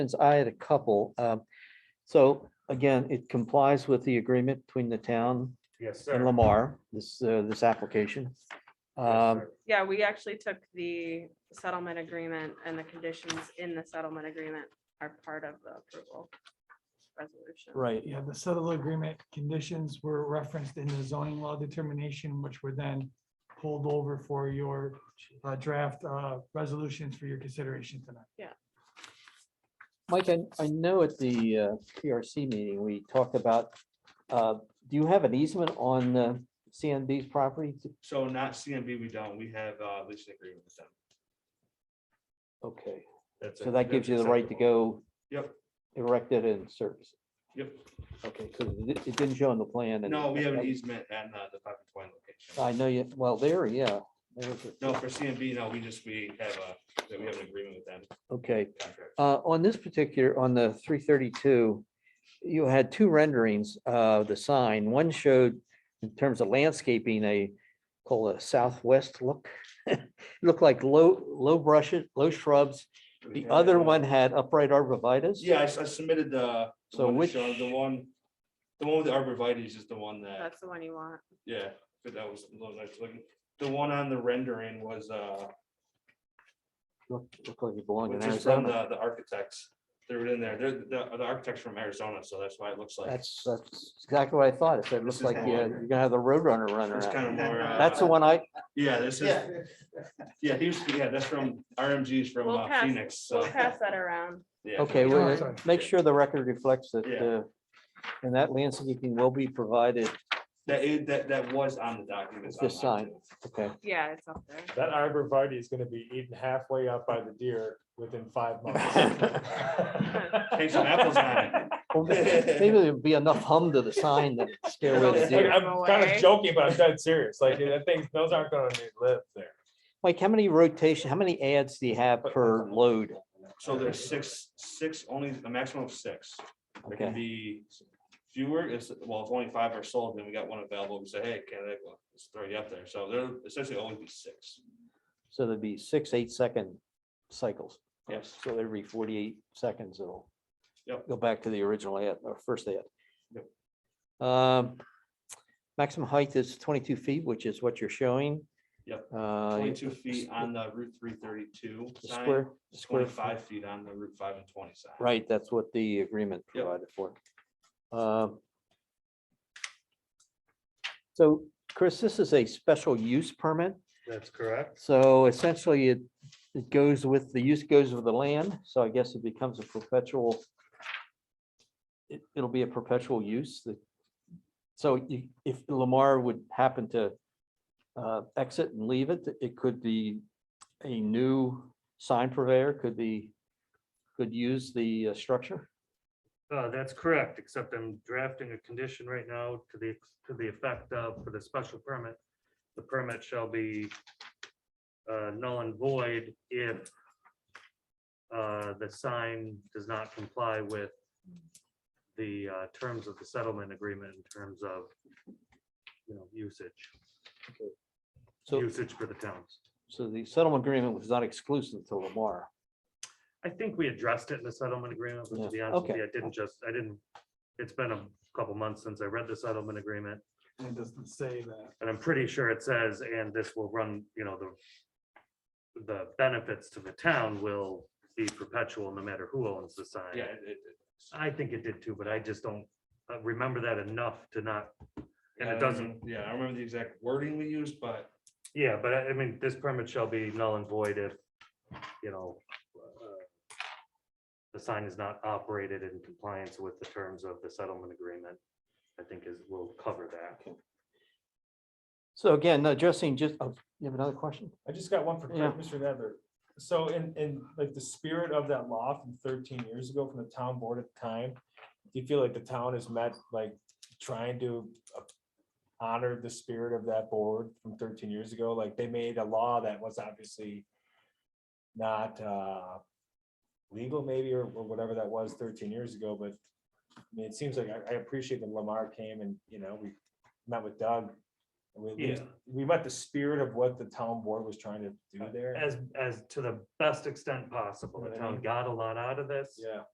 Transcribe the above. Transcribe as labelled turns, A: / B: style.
A: Since I had a couple, um, so again, it complies with the agreement between the town
B: Yes, sir.
A: and Lamar, this, uh, this application.
B: Yes,
A: Um,
B: sir.
C: Yeah, we actually took the settlement agreement and the conditions in the settlement agreement are part of the approval resolution.
A: right,
D: Yeah, the settlement agreement conditions were referenced in the zoning law determination, which were then pulled over for your uh, draft uh, resolutions for your consideration tonight.
A: Mike, I, I know at the uh, PRC meeting, we talked about, uh, do you have an easement on uh, CNB's property?
B: So not CMB, we don't. We have uh leasing agreement with them.
A: Okay,
B: That's
A: so
B: it.
A: that gives
B: That's
A: you the right to
B: acceptable.
A: go
B: Yep.
A: erect it and service. it.
B: Yep.
A: Okay, because it it didn't show on the plan. and-
B: No, we e- have an easement at uh, the five and twenty location.
A: I know you, well, there, yeah. there's it.
B: No, for CMB, no, we just, we have a, that we have an agreement with them
A: Okay.
B: contract.
A: Uh, on this particular, on the three thirty-two, you had two renderings of the sign. One showed in terms of landscaping, a call a southwest look. Looked like low, low brushes, low shrubs. The other one had upright arborvitae.
B: Yeah, I s- I submitted the. the
A: So
B: one that
A: which-
B: showed- The one, the one with the arborvitae's is the one that,
C: That's the one you want.
B: yeah, but that was, the one I was looking. the one on the rendering was uh,
A: Looked looked like it belonged in
B: which is from
A: Arizona.
B: the, the architects. They were in there, they're, the, the architects from Arizona, so that's why it looks like.
A: That's, that's exactly what I thought. It said,
B: This
A: looks
B: is
A: like
B: the
A: you-
B: one.
A: you're gonna have the Roadrunner running
B: It's
A: around.
B: kind of more. uh,
A: That's the one I,
B: Yeah, this is, yeah, he was, yeah, that's from RMG's from
C: We'll
B: uh,
C: pass-
B: Phoenix,
C: We'll
B: so.
C: pass that around.
B: yeah.
A: Okay,
D: Yeah.
A: well,
D: Sorry.
A: make sure the record reflects that,
B: Yeah.
A: uh, and that landscaping will be provided,
B: That, is- that, that was on the document. it's
A: This
B: online,
A: sign.
B: too.
A: okay?
C: Yeah, it's up there.
E: That arborvitae is gonna be eaten halfway up by the deer within five months.
B: Take some apples on it.
A: Well, may- Maybe there'd be enough hum to the sign that scare away the
C: Don't scare
A: deer.
C: them
E: I'm kind
C: away.
E: of joking, but I'm dead serious. Like, that thing, those aren't gonna live there.
A: Mike, how many rotation, how many ads do you have per load?
B: So there's six, six, only a maximum of six. There can
A: Okay,
B: be fewer, it's, well, if only five are sold, then we got one available, we say, hey, can I, well, let's throw you up there, so there essentially only be six.
A: so there'd be six, eight second cycles.
B: Yes.
A: So every forty-eight seconds, it'll
B: Yep.
A: go back to the original ad, or first ad.
B: Yep.
A: Um, maximum height is twenty-two feet, which is what you're showing.
B: Yep.
A: Uh,
B: Twenty-two feet on the Route three thirty-two
A: the
B: sign,
A: square, square.
B: twenty-five feet on the Route five and twenty sign.
A: Right, that's what the agreement
B: Yep.
A: provided for. Um, So Chris, this is a special use permit,
B: That's correct.
A: so essentially it, it goes with, the use goes with the land, so I guess it becomes a perpetual. It, it'll be a perpetual use that, so you- if Lamar would happen to uh, exit and leave it, it could be a new sign purveyor, could be, could use the uh, structure.
F: Uh, that's correct, except I'm drafting a condition right now to the, to the effect of, for the special permit, the permit shall be uh, null and void if uh, the sign does not comply with the uh, terms of the settlement agreement in terms of, you know, usage,
A: So,
F: usage for the towns.
A: so the settlement agreement was not exclusive to Lamar.
F: I think we addressed it in the settlement agreement, but
A: Yeah,
F: to be honest with
A: okay.
F: you, I didn't just, I didn't, it's been a couple months since I read the settlement agreement.
D: And it doesn't say that.
F: And I'm pretty sure it says, and this will run, you know, the, the benefits to the town will be perpetual no matter who owns the sign.
B: Yeah, it- it-
F: I think it did too, but I just don't uh, remember that enough to not, and
B: I don't
F: it doesn't,
B: remember- Um, Yeah, I remember the exact wording we used, but
F: yeah, but I I mean, this permit shall be null and void if, you know, uh, the sign is not operated in compliance with the terms of the settlement agreement, I think is, will cover that.
A: So again, addressing just, oh, you have another question?
E: I just got one for Craig,
A: Yeah.
E: Mr. Nedler. So in, in like the spirit of that law from thirteen years ago from the town board at the time, do you feel like the town has met, like, trying to uh, honor the spirit of that board from thirteen years ago? Like, they made a law that was obviously not, uh, legal maybe, or, or whatever that was thirteen years ago, but I mean, it seems like, I, I appreciate that Lamar came and, you know, we met with Doug. and we- we
F: Yeah.
E: we met the spirit of what the town board was trying to do there.
F: As, as to the best extent possible,
E: You know
F: the
E: what I
F: town
E: mean?
F: got a lot out of this.
E: Yeah,